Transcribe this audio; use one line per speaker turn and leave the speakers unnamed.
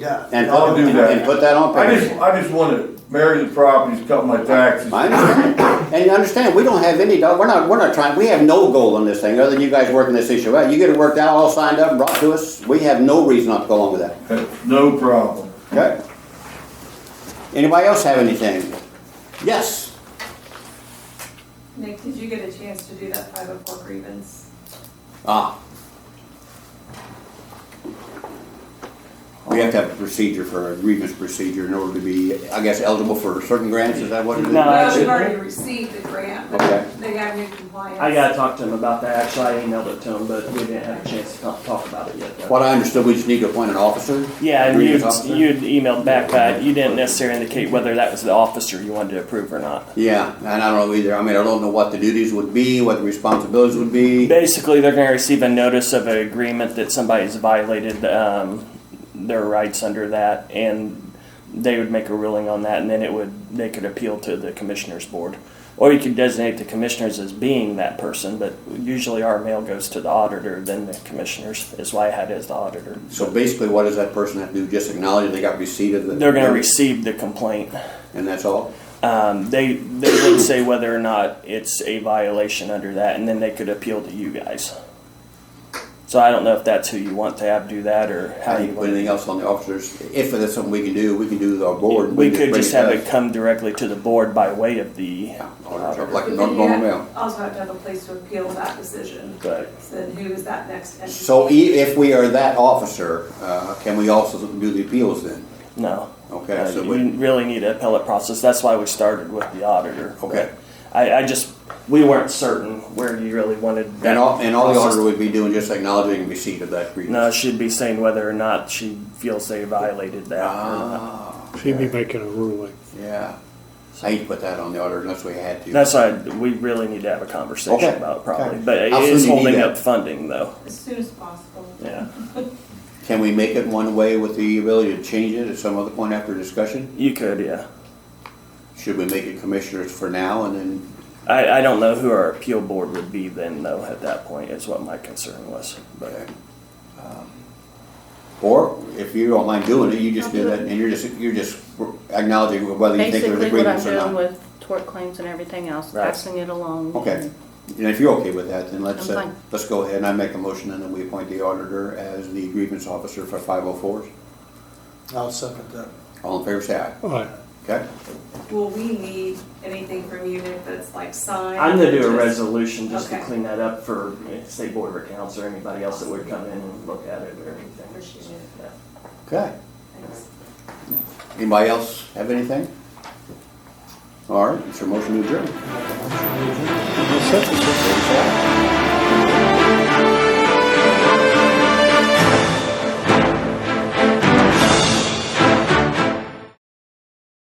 Yeah.
And
I'll
put,
do
and-
that.
and put that on
I just,
paper.
I just wanna marry the properties, cut my taxes.
I understand. And you understand, we don't have any, dog- we're not, we're not trying, we have no goal on this thing, other than you guys working this issue out. You get it worked out, all signed up, and brought to us, we have no reason not to go along with that,
No problem.
okay? Anybody else have anything? Yes,
Nick, did you get a chance to do that five oh four grievance?
ah. We have to have a procedure for a grievance procedure in order to be, I guess, eligible for certain grants, is that what it is?
No.
Well,
actually-
we've already received the grant,
Okay.
but they got new compliance.
I gotta talk to him about that, actually, I emailed it to him, but we didn't have a chance to talk- talk about it yet. though.
What I understood, we just need to appoint an officer?
Yeah, and you,
Grievance officer?
you emailed back that you didn't necessarily indicate whether that was the officer you wanted to approve or not.
Yeah, and I don't know either. I mean, I don't know what the duties would be, what the responsibilities would be.
Basically, they're gonna receive a notice of an agreement that somebody's violated, um, their rights under that, and they would make a ruling on that, and then it would, they could appeal to the commissioners board. Or you could designate the commissioners as being that person, but usually our mail goes to the auditor, then the commissioners, is why I had it as the auditor.
So basically, what does that person have to do? Just acknowledge they got receipt of the.
They're gonna receive the complaint.
And that's all?
Um, they they would say whether or not it's a violation under that, and then they could appeal to you guys. So I don't know if that's who you want to have do that or how
How do
you
you put
want.
anything else on the officers? If that's something we can do, we can do our board. and
We could
bring
just have
to
it come directly to the board by way us. of the.
Yeah,
auditor.
Like a
But
normal
you have-
mail.
Also have to have a place to appeal that decision.
Right.
So then who is that next entity?
So e- if we are that officer, uh, can we also do the appeals then?
No.
Okay,
Uh,
so
you
we-
really need an appellate process. That's why we started with the auditor.
Okay.
I, I just we weren't certain where you really wanted. that
And all, and all the
process
auditor would be doing just acknowledging receipt of that grievance?
No, she'd be saying whether or not she feels they violated that. or not.
Ah,
She'd be making a ruling.
yeah. I hate to put that on the auditor unless we had to.
That's why we really need to have a conversation
Okay.
about it
Okay.
probably. But it
How soon
is
do you need
holding
that?
up funding though.
As soon as possible.
Yeah.
Can we make it one way with the ability to change it at some other point after discussion?
You could, yeah.
Should we make it commissioners for now and then,
I, I don't know who our appeal board would be then though at that point is what my concern was. But
okay. Um, Or if you don't mind doing it, you just
I'll
do
do
that
it.
and you're just, you're just acknowledging whether you think there's
Basically, what I'm
agreements or
doing
not.
with tort claims and everything else,
Right.
passing it along.
Okay, and if you're okay with that, then let's,
I'm
uh,
fine.
let's go ahead and I make a motion and then we appoint the auditor as the grievance officer for five oh fours.
I'll second that.
All in favor, say aye.
Aye.
Okay?
Will we need anything from you, Nick, that's like signed?
I'm gonna do a
Just-
resolution just to
Okay.
clean that up for state board of accounts or anybody else that would come in and look at it or anything.
Appreciate it.
Yeah.
Okay.
Thanks.
Anybody else have anything? All right, it's your motion to adjourn. Favor say aye.